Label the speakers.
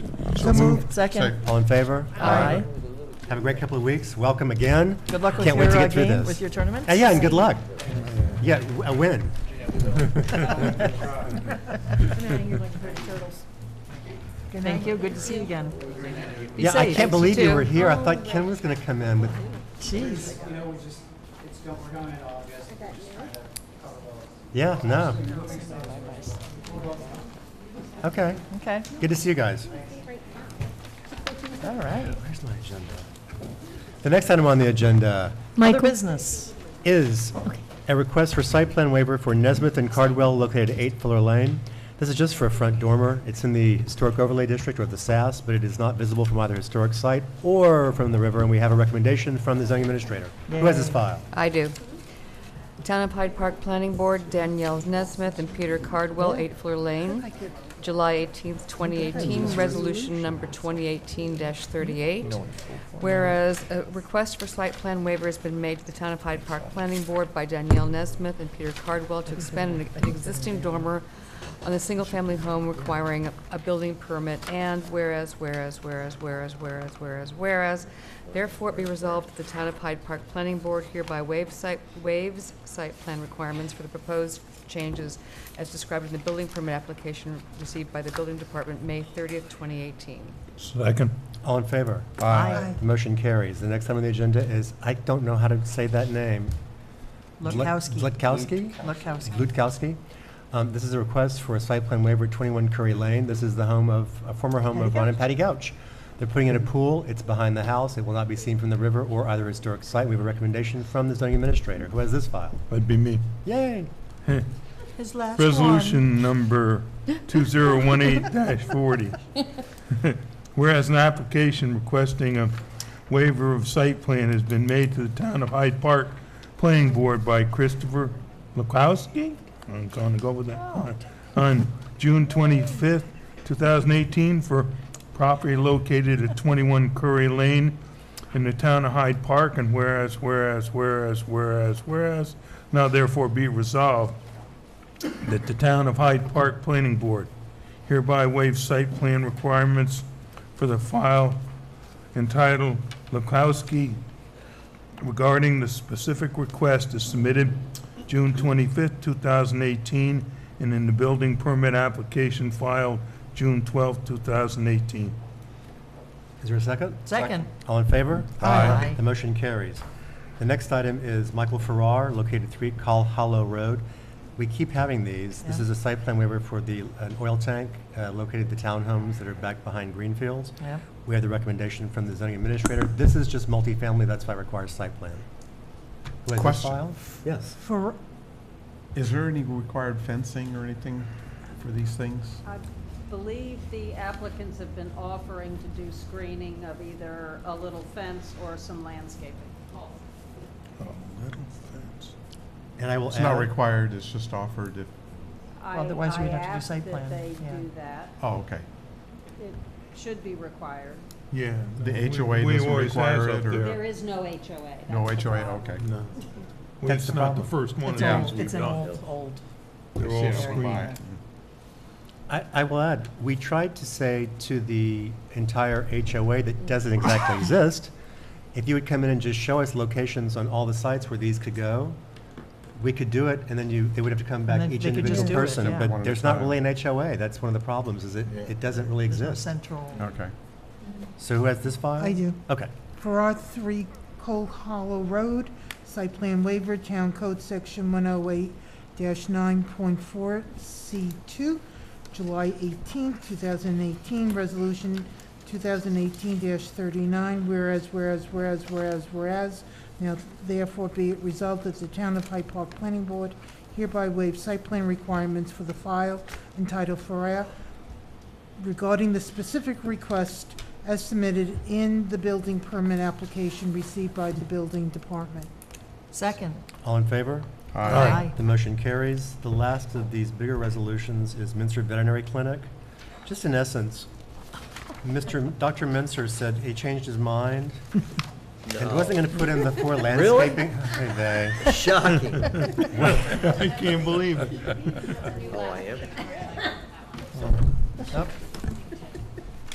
Speaker 1: So moved.
Speaker 2: Second.
Speaker 1: All in favor?
Speaker 2: Aye.
Speaker 1: Have a great couple of weeks. Welcome again.
Speaker 2: Good luck with
Speaker 1: Can't wait
Speaker 2: your
Speaker 1: to
Speaker 2: uh,
Speaker 1: get through
Speaker 2: game,
Speaker 1: this.
Speaker 2: with your tournament.
Speaker 1: Uh, Yeah, and good luck. Yeah, w- a win.
Speaker 2: Thank you, good to see you again. Be
Speaker 1: Yeah, I
Speaker 2: safe. Oh.
Speaker 1: can't believe you were
Speaker 2: too.
Speaker 1: here. I thought Ken was going to come in with,
Speaker 2: Jeez,
Speaker 3: You know, we just, it's, go- we're going in August, we're just trying to cover both.
Speaker 1: yeah, no. Okay,
Speaker 2: okay,
Speaker 1: good to see you guys.
Speaker 2: all right.
Speaker 1: Where's my agenda? The next item on the agenda
Speaker 2: Other
Speaker 4: Michael,
Speaker 2: business.
Speaker 1: is a request for site plan waiver for Nesmith and Cardwell located at 8 Fuller Lane. This is just for a front dormer. It's in the Historic Overlay District or the SAS, but it is not visible from either historic site or from the river, and we have a recommendation from the zoning administrator. Who has this file?
Speaker 5: I do. Town of Hyde Park Planning Board, Danielle Nesmith and Peter Cardwell, 8 Fleur Lane, July 18th, 2018, Resolution Number 2018-38. Whereas a request for site plan waiver has been made to the Town of Hyde Park Planning Board by Danielle Nesmith and Peter Cardwell to expand an an existing dormer on a single-family home requiring a building permit, and whereas, whereas, whereas, whereas, whereas, whereas, whereas, therefore it be resolved that the Town of Hyde Park Planning Board hereby waives site, waives site plan requirements for the proposed changes as described in the building permit application received by the Building Department May thirtieth, twenty eighteen.
Speaker 6: Second.
Speaker 1: All in favor?
Speaker 2: Aye.
Speaker 1: The Motion carries. The next item on the agenda is, I don't know how to say that name. Zlut-
Speaker 2: Lukowski.
Speaker 1: Zlutkowski?
Speaker 2: Lukowski.
Speaker 1: Lutkowski. Um, This is a request for a site plan waiver at 21 Curry Lane. This is the home of, a former home of Ron and Patty Gouch. They're putting in a pool, it's behind the house, it will not be seen from the river or either historic site. We have a recommendation from the zoning administrator, who has this file.
Speaker 6: That'd be me.
Speaker 1: Yay!
Speaker 2: His last
Speaker 6: Resolution number 2018-40. Whereas an application requesting a waiver of site plan has been made to the Town of Hyde Park Planning Board by Christopher Lukowski? I'm going to go with that. On- On June 25th, 2018, for property located at 21 Curry Lane in the Town of Hyde Park, and whereas, whereas, whereas, whereas, whereas, now therefore be resolved that the Town of Hyde Park Planning Board hereby waives site plan requirements for the file entitled Lukowski regarding the specific request is submitted June 25th, 2018, and in the building permit application filed June 12th, 2018.
Speaker 1: Is there a second?
Speaker 2: Second.
Speaker 1: All in favor?
Speaker 2: Aye.
Speaker 1: The motion carries. The next item is Michael Farrar, located at 3 Call Hollow Road. We keep having these. This
Speaker 2: Yeah.
Speaker 1: is a site plan waiver for the, an oil tank uh, located at the townhomes that are back behind Greenfields.
Speaker 2: Yeah.
Speaker 1: We have the recommendation from the zoning administrator. This is just multifamily, that's why it requires site plan. Who has this
Speaker 7: Question.
Speaker 1: file? Yes.
Speaker 7: For, is there any required fencing or anything for these things?
Speaker 8: I believe the applicants have been offering to do screening of either a little fence or some landscaping.
Speaker 1: And I will
Speaker 7: It's not
Speaker 1: add,
Speaker 7: required, it's just offered if,
Speaker 8: I-
Speaker 2: Otherwise, you would have to do
Speaker 8: I asked
Speaker 2: site
Speaker 8: that
Speaker 2: plan,
Speaker 8: they
Speaker 2: yeah.
Speaker 8: do that.
Speaker 7: oh, okay.
Speaker 8: It should be required.
Speaker 6: Yeah.
Speaker 7: The
Speaker 6: we-
Speaker 7: HOA
Speaker 6: we
Speaker 7: doesn't
Speaker 6: always has
Speaker 7: require
Speaker 6: up
Speaker 7: it, or-
Speaker 6: there.
Speaker 8: There is no HOA.
Speaker 7: No
Speaker 8: that's the
Speaker 7: HOA,
Speaker 8: problem.
Speaker 7: okay.
Speaker 6: No.
Speaker 1: That's
Speaker 6: It's
Speaker 1: the
Speaker 6: not the
Speaker 1: problem.
Speaker 6: first one of
Speaker 2: It's
Speaker 7: Yeah.
Speaker 6: those
Speaker 2: old,
Speaker 6: we've
Speaker 2: it's an
Speaker 6: done.
Speaker 2: old, old.
Speaker 6: They're
Speaker 7: Yeah,
Speaker 6: all
Speaker 7: it's
Speaker 6: screened.
Speaker 7: required.
Speaker 1: I, I will add, we tried to say to the entire HOA that doesn't exactly exist, if you would come in and just show us locations on all the sites where these could go, we could do it, and then you, they would have to come back
Speaker 2: then
Speaker 1: each
Speaker 2: they could
Speaker 1: individual
Speaker 2: just do it,
Speaker 1: person.
Speaker 2: yeah.
Speaker 7: One
Speaker 1: But
Speaker 7: at a
Speaker 1: there's not
Speaker 7: time.
Speaker 1: really an HOA, that's one of the problems, is it,
Speaker 6: Yeah.
Speaker 1: it doesn't really
Speaker 2: There's no
Speaker 1: exist.
Speaker 2: central.
Speaker 7: Okay.
Speaker 1: So who has this file?
Speaker 9: I do.
Speaker 1: Okay.
Speaker 9: For R three Coal Hollow Road, site plan waiver, Town Code Section one oh eight nine point four C two, July eighteenth, two thousand eighteen, resolution two thousand eighteen thirty-nine, whereas, whereas, whereas, whereas, whereas, now therefore be it resolved that the Town of Hyde Park Planning Board hereby waives site plan requirements for the file entitled Farrar regarding the specific request as submitted in the building permit application received by the building department.
Speaker 2: Second.
Speaker 1: All in favor?
Speaker 7: Aye.
Speaker 1: The motion carries. The last of these bigger resolutions is Minster Veterinary Clinic. Just in essence, Mr., M- Dr. Minster said he changed his mind and wasn't going to put in the four landscaping. Hey, they.
Speaker 10: Shocking.
Speaker 6: I can't believe it.
Speaker 10: Oh, I am.
Speaker 1: Nope.